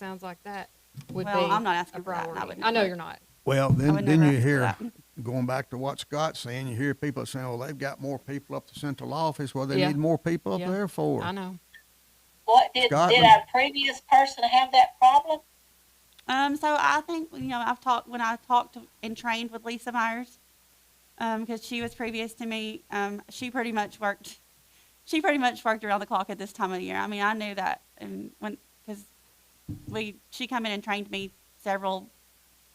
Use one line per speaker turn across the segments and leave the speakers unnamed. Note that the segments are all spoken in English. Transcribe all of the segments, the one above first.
sounds like that would be.
Well, I'm not asking
a
for that, and I
priority.
wouldn't
I know
either.
you're not.
Well, then,
would
then
never
you
ask for
hear,
that.
going back to what Scott's saying, you hear people saying, well, they've got more people up the central office. Well, they
Yeah.
need more people up
Yeah.
there for.
I know.
What did
Scott,
did
would-
our previous person have that problem?
Um, so I think you know I've talked when I talked and trained with Lisa Myers, um, because she was previous to me. Um, she pretty much worked, she pretty much worked around the clock at this time of year. I mean, I knew that, and when because we she come in and trained me several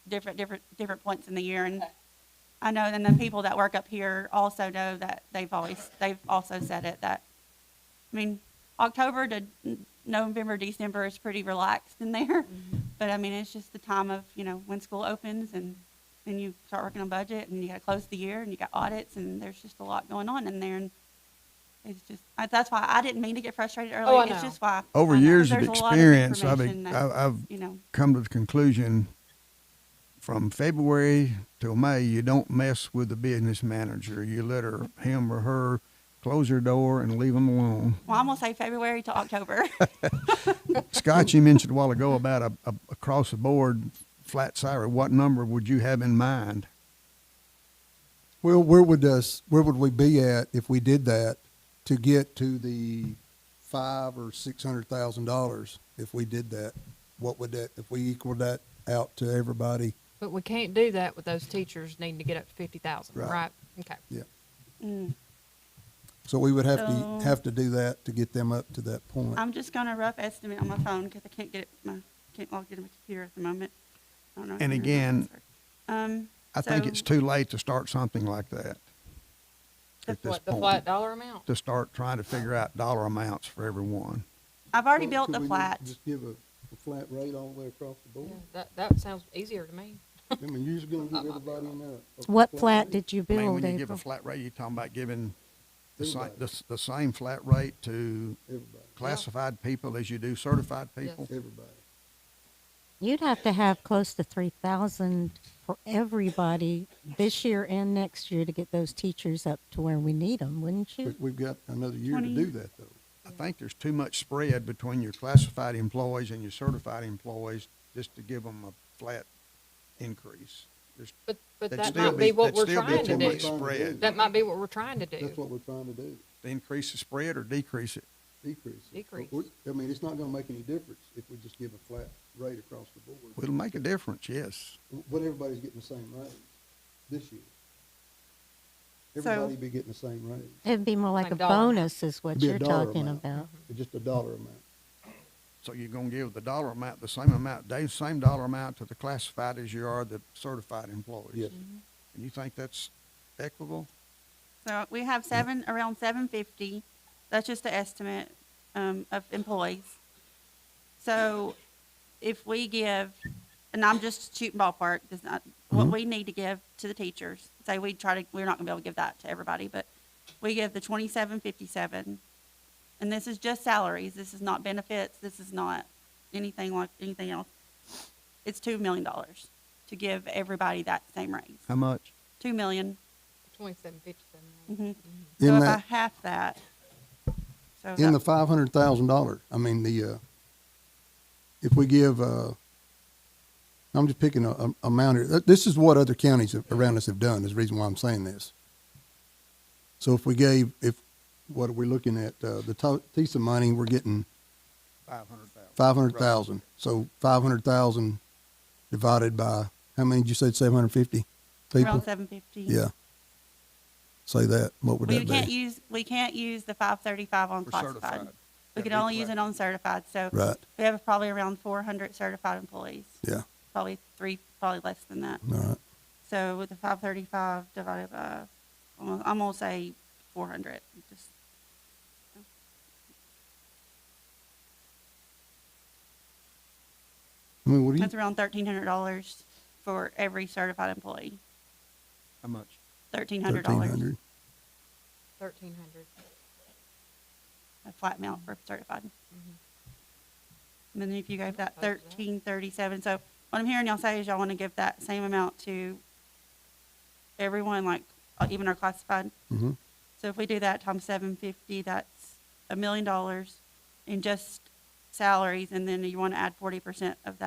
different different different points in the year, and I know. And the people that work up here also know that they've always they've also said it that, I mean, October to November December is pretty relaxed in there. But I mean, it's just the time of, you know, when school opens and then you start working on budget and you got to close the year and you got audits and there's just a lot going on in there. And it's just, I, that's why I didn't mean to get frustrated earlier.
Oh, I know.
It's just why.
Over
I know
years of
there's a lot
experience, I've,
information that,
I've, I've
you know,
come to the conclusion from February till May, you don't mess with the business manager. You let her, him or her, close her door and leave them alone.
well, I'm going to say February to October.
Scott, you mentioned a while ago about a, a across the board flat salary. What number would you have in mind?
Well, where would us, where would we be at if we did that to get to the five or six hundred thousand dollars? If we did that, what would that, if we equaled that out to everybody?
But we can't do that with those teachers needing to get up to fifty thousand,
Right.
right? Okay.
Mm.
So we would have
So-
to, have to do that to get them up to that point.
I'm just going to rough estimate on my phone because I can't get it, my, can't log into my computer at the moment. I don't know. if
And
you know the
again-
answer. Um,
I think
So-
it's too late to start something like that
The
at this
flat, the
point.
flat dollar amount?
To start trying to figure out dollar amounts for everyone.
I've already built the flat.
Just give a, flat rate all the way across the board?
Yeah, That, that sounds easier to me.
I mean, you're just gonna give everybody in there.
What flat did you
I mean,
build,
when you give a
April?
flat rate, you're talking about giving the same,
Everybody.
the, s- the same flat rate to
Everybody,
classified people as you do certified people.
everybody.
You'd have to have close to three thousand for everybody this year and next year to get those teachers up to where we need them, wouldn't you?
we've got another year
to do
that though.
I think there's too much spread between your classified employees and your certified employees just to give them a flat increase. There's,
But, but
that'd
that
still
might be what
that'd
we're
still be
trying to
too much
do.
much.
Spread,
That might be what we're trying to
That's
do.
what we're trying to do.
To increase the spread or decrease it.
Decrease. it.
Decrease.
We- I mean, it's not gonna make any difference if we just give a flat rate across the board.
It'll make a difference, yes.
But everybody's getting the same rate this year.
So-
Everybody be getting the same rate.
It'd be more like
Like
a
dollar amount.
bonus is what
It'd be a
you're
dollar
talking
amount.
about.
It's just a dollar amount.
So you're gonna give the dollar amount, the same amount, the same dollar amount to the classified as you are the certified employees.
Yes.
And you think that's equitable?
So we have seven, around seven fifty, that's just an estimate, um, of employees. So if we give, and I'm just shooting ballpark, does not, what we need to give to the teachers, say we try to, we're not gonna be able to give that to everybody, but we give the twenty-seven fifty-seven. And this is just salaries, this is not benefits, this is not anything like, anything else. It's two million dollars to give everybody that same raise,
How much?
two million.
Twenty-seven fifty-seven.
Mm-hmm. So
In
if I
that,
half that, so
in the
that-
five hundred thousand dollars, I mean, the, uh, if we give, uh, I'm just picking a, a amount here. Th- This is what other counties a- around us have done, is the reason why I'm saying this. So if we gave, if, what are we looking at, uh, the to- piece of money, we're getting
Five hundred thousand.
Five hundred thousand. So five hundred thousand divided by how many? Did you say seven hundred fifty people?
around seven fifty.
Yeah. Say that. What would
We
that
can't
be?
use, we can't use the five thirty-five on
For
classified.
certified.
We
That'd
can
be
only use
correct.
it on certified, so
right.
we have probably around four hundred certified employees.
Yeah.
Probably three, probably less than that.
All right.
So with the five thirty-five divided by, I'm I'm gonna say four hundred, just.
Mm-hmm. I mean, what do you?
That's around thirteen hundred dollars for every certified employee,
How much?
thirteen hundred
Thirteen
dollars,
hundred.
Thirteen hundred.
a flat amount for certified.
Mhm.
And then if you gave that
Close to that.
thirteen thirty-seven, so what I'm hearing y'all say is y'all wanna give that same amount to everyone, like, uh, even our classified.
Mm-hmm.
So if we do that times seven fifty, that's a million dollars in just salaries, and then you want to add forty percent of that